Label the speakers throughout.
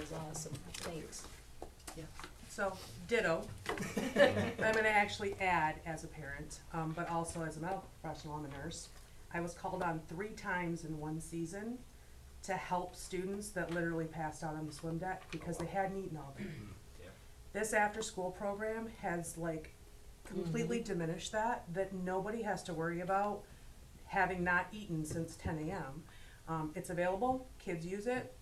Speaker 1: was awesome, thanks.
Speaker 2: So, ditto. I'm gonna actually add as a parent, um, but also as a medical professional, I'm a nurse. I was called on three times in one season to help students that literally passed out on the swim deck because they hadn't eaten all day. This after-school program has like completely diminished that, that nobody has to worry about having not eaten since ten AM. Um, it's available, kids use it,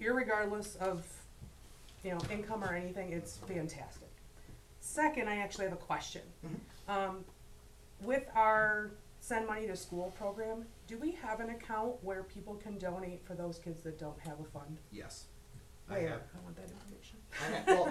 Speaker 2: irregardless of you know, income or anything, it's fantastic. Second, I actually have a question. Um, with our send money to school program, do we have an account where people can donate for those kids that don't have a fund?
Speaker 3: Yes. I
Speaker 2: Where?
Speaker 3: have,
Speaker 2: I want that information.
Speaker 3: I have, well,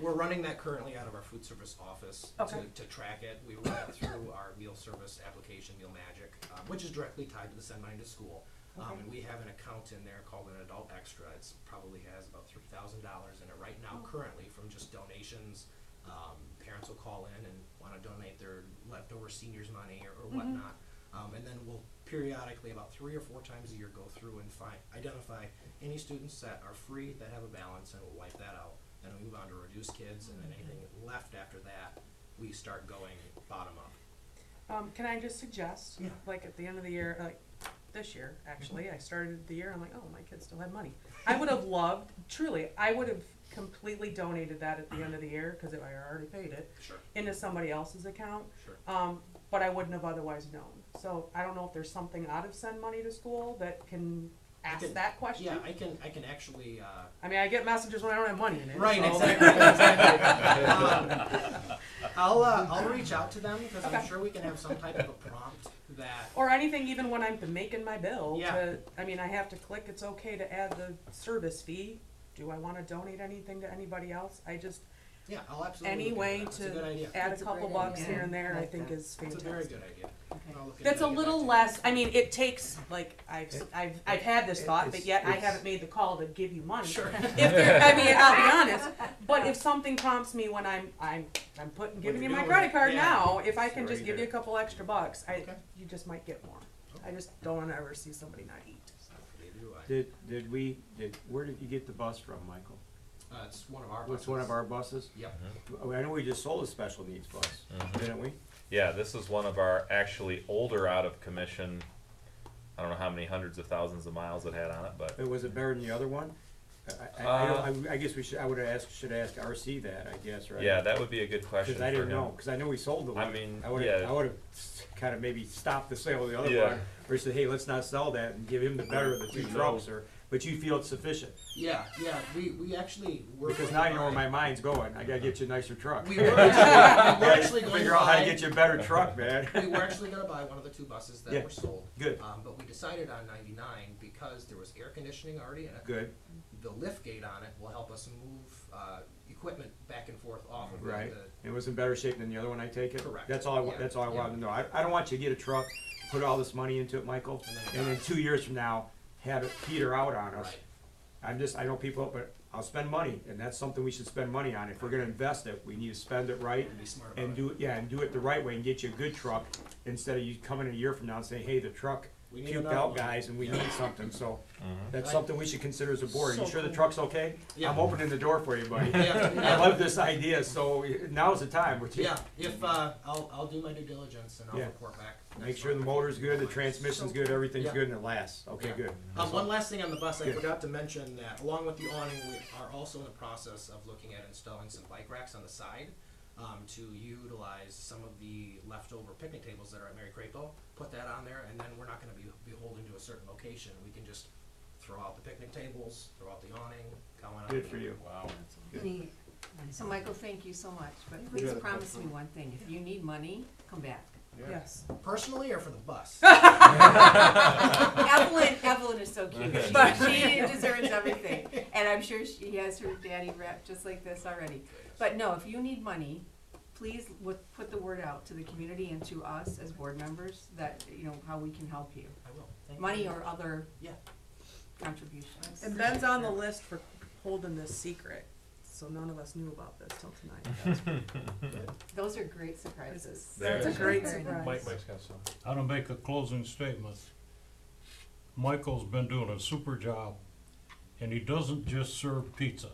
Speaker 3: we're running that currently out of our food service office to,
Speaker 2: Okay.
Speaker 3: to track it. We run it through our meal service application, Meal Magic, um, which is directly tied to the send money to school. Um, and we have an account in there called an adult extra. It's probably has about three thousand dollars in it right now currently from just donations. Um, parents will call in and wanna donate their leftover seniors money or, or
Speaker 2: Mm-hmm.
Speaker 3: whatnot. Um, and then we'll periodically, about three or four times a year, go through and find, identify any students that are free, that have a balance, and we'll wipe that out. Then we move on to reduce kids, and
Speaker 2: Mm-hmm.
Speaker 3: then anything left after that, we start going bottom up.
Speaker 2: Um, can I just suggest,
Speaker 3: Yeah. Mm-hmm.
Speaker 2: like at the end of the year, like this year, actually, I started the year, I'm like, oh, my kids still have money. I would have loved, truly, I would have completely donated that at the end of the year, cause if I already paid it,
Speaker 3: Sure.
Speaker 2: into somebody else's account.
Speaker 3: Sure.
Speaker 2: Um, but I wouldn't have otherwise known. So I don't know if there's something out of send money to school that can ask
Speaker 3: can-
Speaker 2: that question.
Speaker 3: Yeah, I can, I can actually, uh,
Speaker 2: I mean, I get messages when I don't have money in it.
Speaker 3: Right,
Speaker 2: so-
Speaker 3: exactly. exactly. Um, I'll, uh, I'll reach out to them because I'm
Speaker 2: Okay.
Speaker 3: sure we can have some type of a prompt that.
Speaker 2: Or anything, even when I'm making my bill.
Speaker 3: Yeah.
Speaker 2: To, I mean, I have to click, it's okay to add the service fee. Do I want to donate anything to anybody else? I just,
Speaker 3: Yeah, I'll absolutely.
Speaker 2: any
Speaker 3: look
Speaker 2: way
Speaker 3: into that. That's a good
Speaker 2: to
Speaker 3: idea.
Speaker 2: add a
Speaker 1: That's a
Speaker 2: couple
Speaker 1: great
Speaker 2: bucks
Speaker 1: idea.
Speaker 2: here and there,
Speaker 1: I
Speaker 2: I
Speaker 1: like
Speaker 2: think
Speaker 1: that.
Speaker 2: is
Speaker 3: It's a
Speaker 2: fantastic.
Speaker 3: very good idea. I'll look into
Speaker 2: That's
Speaker 3: it
Speaker 2: a
Speaker 3: and get back
Speaker 2: little
Speaker 3: to you.
Speaker 2: less, I mean, it takes, like, I've, s- I've, I've had this thought, but
Speaker 4: it's-
Speaker 2: yet I
Speaker 4: it's-
Speaker 2: haven't made the call to give you money.
Speaker 3: Sure.
Speaker 2: If, there- I mean, I'll be honest, but if something prompts me when I'm, I'm, I'm putting, giving you
Speaker 3: you're
Speaker 2: my
Speaker 3: doing
Speaker 2: credit
Speaker 3: it,
Speaker 2: card
Speaker 3: yeah.
Speaker 2: now, if I can
Speaker 3: Or
Speaker 2: just give you a
Speaker 3: either.
Speaker 2: couple extra bucks, I,
Speaker 3: Okay.
Speaker 2: you just might get more. I just don't wanna ever see somebody not eat.
Speaker 3: Neither do I.
Speaker 4: Did, did we, did, where did you get the bus from, Michael?
Speaker 3: Uh, it's one of our.
Speaker 4: It's one of
Speaker 3: buses.
Speaker 4: our Uh-huh. buses?
Speaker 3: Yep.
Speaker 4: I know we just sold a special needs bus,
Speaker 5: Mm-hmm.
Speaker 4: didn't we?
Speaker 5: Yeah, this is one of our actually older out of commission. I don't know how many hundreds of thousands of miles it had on it, but
Speaker 4: And was it better than the other one? I, I- I,
Speaker 5: Uh,
Speaker 4: don't- I, I guess we should, I would ask, should ask RC that, I guess, right?
Speaker 5: yeah, that would be a good question
Speaker 4: Cause I
Speaker 5: for
Speaker 4: didn't
Speaker 5: him.
Speaker 4: know, cause I know we sold the
Speaker 5: I
Speaker 4: one.
Speaker 5: mean,
Speaker 4: I would've,
Speaker 5: yeah.
Speaker 4: I would've kinda maybe stopped the sale of the other
Speaker 5: Yeah.
Speaker 4: one, or said, hey, let's not sell that and give him the better of the two
Speaker 5: No.
Speaker 4: trucks, or, but you feel it's sufficient.
Speaker 3: Yeah, yeah, we, we actually were.
Speaker 4: Because
Speaker 3: going
Speaker 4: now you know where
Speaker 3: by-
Speaker 4: my mind's going, I gotta get you a nicer truck.
Speaker 3: We were actually, we were actually going to buy.
Speaker 4: Figure out how to get you a better truck, man.
Speaker 3: we were actually gonna buy one of the two buses that
Speaker 4: Yeah.
Speaker 3: were sold.
Speaker 4: Good.
Speaker 3: Um, but we decided on ninety-nine because there was air conditioning already in it.
Speaker 4: Good,
Speaker 3: The lift gate on it will help us move, uh, equipment back and forth off of the.
Speaker 4: right. It was in better shape than the other one, I take it?
Speaker 3: Correct.
Speaker 4: That's all I, wa-
Speaker 3: Yeah.
Speaker 4: that's all I wanted to know. I, I don't want you to get a truck, put all this money into it, Michael,
Speaker 3: And then it
Speaker 4: and then
Speaker 3: dies.
Speaker 4: two years from now, have it peter out on us.
Speaker 3: Right.
Speaker 4: I'm just, I know people, but I'll spend money, and that's something we should spend money on. If we're gonna invest it, we need to spend it right.
Speaker 3: And be smart about
Speaker 4: And
Speaker 3: it.
Speaker 4: do, it. yeah, and do it the right way and get you a good truck, instead of you coming a year from now and saying, hey, the truck
Speaker 3: We need
Speaker 4: puked
Speaker 3: another
Speaker 4: out,
Speaker 3: one.
Speaker 4: guys, and we need something, so. That's
Speaker 3: Right.
Speaker 4: something we should consider as a board. Are
Speaker 2: So
Speaker 4: you sure the
Speaker 2: cool.
Speaker 4: truck's okay?
Speaker 3: Yeah.
Speaker 4: I'm opening the door for you, buddy. I
Speaker 3: Yeah,
Speaker 4: love this idea, so now's the time. We're
Speaker 3: yeah, if, uh, I'll, I'll do my due diligence and I'll
Speaker 4: Yeah.
Speaker 3: report back.
Speaker 4: Make
Speaker 3: next
Speaker 4: sure the
Speaker 3: month.
Speaker 4: motor's good, the transmission's good, everything's
Speaker 3: Yeah.
Speaker 4: good, and it lasts. Okay,
Speaker 3: Yeah.
Speaker 4: good.
Speaker 3: Um, one last thing on the bus, I
Speaker 4: Good.
Speaker 3: forgot to mention that along with the awning, we are also in the process of looking at installing some bike racks on the side um, to utilize some of the leftover picnic tables that are at Mary Crapo. Put that on there, and then we're not going to be beholden to a certain location. We can just throw out the picnic tables, throw out the awning, go on.
Speaker 4: Good for you.
Speaker 5: Wow.
Speaker 6: Neat. So Michael, thank you so much, but please
Speaker 4: got a
Speaker 6: promise me one thing, if you need money, come back.
Speaker 2: Yes.
Speaker 3: Personally or for the bus?
Speaker 6: Evelyn, Evelyn is so cute, she, she deserves everything, and I'm sure she has her daddy wrapped just like this already. But no, if you need money, please wo- put the word out to the community and to us as board members that, you know, how we can help you.
Speaker 3: I will. Thank you.
Speaker 6: Money or other
Speaker 3: Yeah.
Speaker 6: contributions.
Speaker 2: And Ben's on the list for holding this secret, so none of us knew about this till tonight.
Speaker 6: Those are great surprises.
Speaker 5: There
Speaker 2: That's a
Speaker 5: is.
Speaker 2: great
Speaker 6: Very nice.
Speaker 2: surprise.
Speaker 5: got some.
Speaker 7: I'm gonna make a closing statement. Michael's been doing a super job and he doesn't just serve pizza.